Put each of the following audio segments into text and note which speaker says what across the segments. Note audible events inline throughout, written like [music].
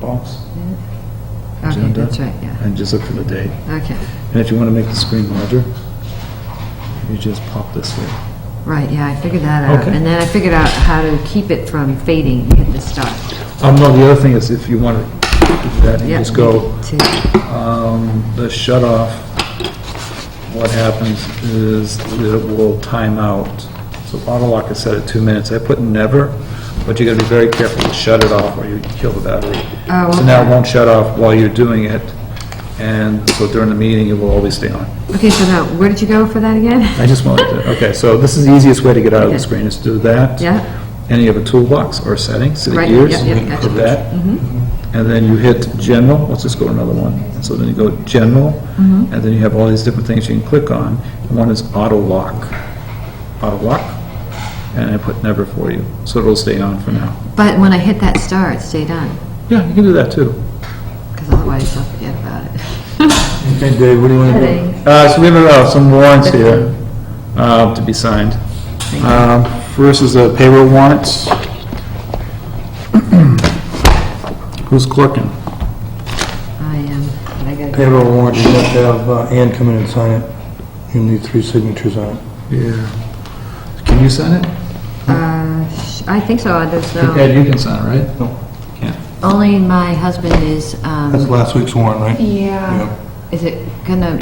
Speaker 1: box
Speaker 2: Okay,
Speaker 1: agenda.
Speaker 2: that's right, yeah.
Speaker 1: And just look for the date.
Speaker 2: Okay,
Speaker 1: And if you want to make the screen larger, you just pop this here.
Speaker 2: right, yeah, I figured that out.
Speaker 1: Okay.
Speaker 2: And then I figured out how to keep it from fading at the start.
Speaker 1: Um, no, the other thing is if you want to do that, you
Speaker 2: Yeah,
Speaker 1: just go,
Speaker 2: to-
Speaker 1: um, the shut off, what happens is that it will time out. So auto lock is set at two minutes. I put never, but you gotta be very careful to shut it off or you kill the battery.
Speaker 2: Oh,
Speaker 1: So now it
Speaker 2: okay.
Speaker 1: won't shut off while you're doing it, and so during the meeting, it will always stay on.
Speaker 2: Okay, so now, where did you go for that again?
Speaker 1: I just wanted to, okay, so this is the easiest way to get out of the
Speaker 2: Okay.
Speaker 1: screen, is to do that.
Speaker 2: Yeah.
Speaker 1: And you have a toolbox or settings, so the
Speaker 2: Right,
Speaker 1: gears,
Speaker 2: yeah, yeah, gotcha. Mm-hmm.
Speaker 1: put that. And then you hit general, let's just go to another one. And So then you go general,
Speaker 2: Mm-hmm.
Speaker 1: and then you have all these different things you can click on. And One is auto lock, auto lock, and I put never for you, so it'll stay on for now.
Speaker 2: But when I hit that star, it stayed on,
Speaker 1: Yeah, you can do that too.
Speaker 2: because otherwise I'll forget about it.
Speaker 1: Okay, Dave, what do you want to
Speaker 2: Heading.
Speaker 1: do? Uh, so we have uh, some warrants here, uh, to be signed. Um, first is a payroll warrant. [clears throat] Who's clerking?
Speaker 2: I am, but I gotta go.
Speaker 3: Payroll warrant, you have to have uh, Ann come in and sign it. You need three signatures on it.
Speaker 1: Yeah. Can you sign it?
Speaker 2: Uh, sh- I think so, there's no,
Speaker 1: Ed, you can sign it, right?
Speaker 3: No.
Speaker 1: Can't.
Speaker 2: only my husband is,
Speaker 3: That's
Speaker 2: um,
Speaker 3: last week's warrant, right?
Speaker 4: Yeah,
Speaker 2: is it gonna,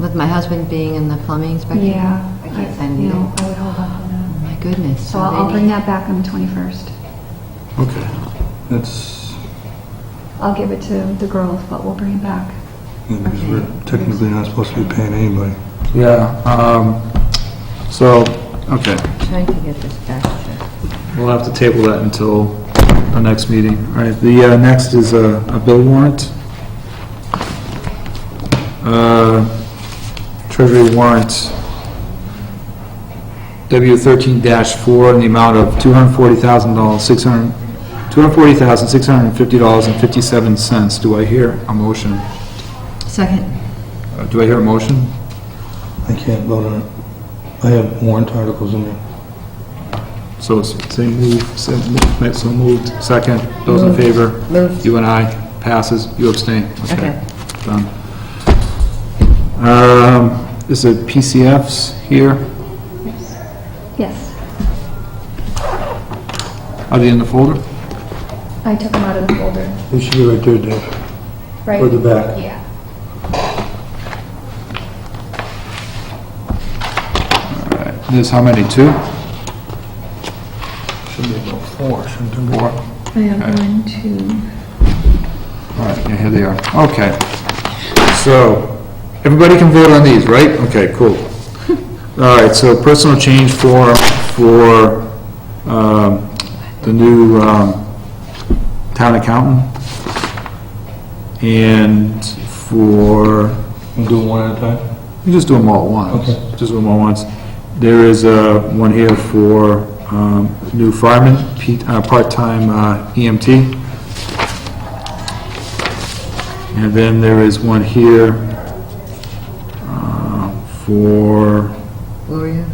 Speaker 2: with my husband being in the plumbing inspection?
Speaker 4: yeah.
Speaker 2: I can't sign it
Speaker 4: No,
Speaker 2: either.
Speaker 4: I would hold off on that.
Speaker 2: Oh, My goodness.
Speaker 4: So I'll I'll
Speaker 2: they
Speaker 4: bring
Speaker 2: need-
Speaker 4: that back on the 21st.
Speaker 3: Okay. That's,
Speaker 4: I'll give it to the girls, but we'll bring it back.
Speaker 3: yeah, because we're technically not supposed to be paying anybody.
Speaker 1: Yeah, um, so, okay,
Speaker 2: Trying to get this back to,
Speaker 1: we'll have to table that until the next meeting. All right, the, uh, next is a, a bill warrant. Uh, Treasury warrant W thirteen four in the amount of two hundred forty thousand dollars, six hundred, two hundred forty thousand, six hundred and fifty dollars and fifty-seven cents. Do I hear a motion?
Speaker 2: second,
Speaker 1: Uh, Do I hear a motion?
Speaker 3: I can't vote on it. I have warrant articles in there.
Speaker 1: So, s- say move, so moved, so moved, second, those in favor?
Speaker 2: Moved.
Speaker 1: You and I, passes, you abstain.
Speaker 2: Okay.
Speaker 1: Done. Um, is it PCFs here?
Speaker 4: Yes,
Speaker 1: Are they in the folder?
Speaker 4: I took them out of the folder,
Speaker 3: They should be right there, Dave.
Speaker 4: right?
Speaker 3: Or the back.
Speaker 4: Yeah.
Speaker 1: There's how many, two?
Speaker 3: Should be about four, shouldn't there be?
Speaker 1: Four? All
Speaker 4: I have one, two,
Speaker 1: right, yeah, here they are, okay. So, everybody can vote on these, right? Okay, cool. All right, so personal change form for, um, the new, um, town accountant and for,
Speaker 3: We'll do one at a time.
Speaker 1: you just do them all at once.
Speaker 3: Okay.
Speaker 1: Just do them all at once. There is, uh, one here for, um, new fireman, Pete, uh, part-time, uh, EMT. And then there is one here, uh, for,
Speaker 2: Gloria,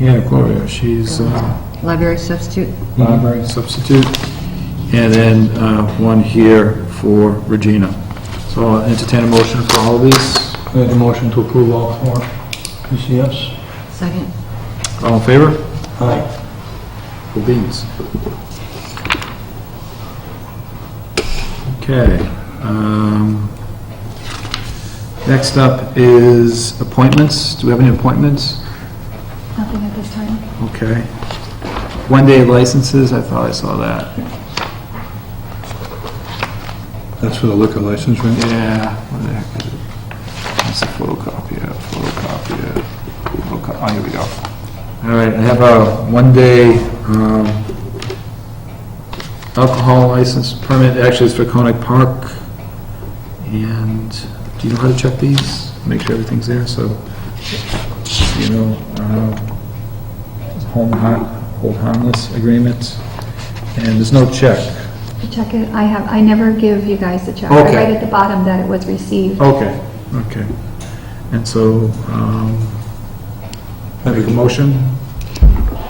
Speaker 1: yeah, Gloria, she's, uh,
Speaker 2: library substitute,
Speaker 1: library substitute. And then, uh, one here for Regina. So I'll entertain a motion for all of these.
Speaker 3: I have a motion to approve all four PCFs.
Speaker 2: second,
Speaker 1: All in favor?
Speaker 3: Aye.
Speaker 1: for beans. Okay. um, Next up is appointments. Do we have any appointments?
Speaker 4: nothing at this time.
Speaker 1: Okay. One-day licenses, I thought I saw that.
Speaker 3: That's for the liquor license, right?
Speaker 1: Yeah. What the heck is it? That's a photocopy, of photocopy, of photocopy. Oh, here we go. All right, I have a one-day um, alcohol license permit, actually it's for Conic Park. And do you know how to check these? Make sure everything's there, so, you know, um, home, har- hold harmless agreement. And there's no check.
Speaker 4: The check, is- I have, I never give you guys the check. I
Speaker 1: Okay.
Speaker 4: write at the bottom that it was received.
Speaker 1: Okay, okay. And so, um, I make a motion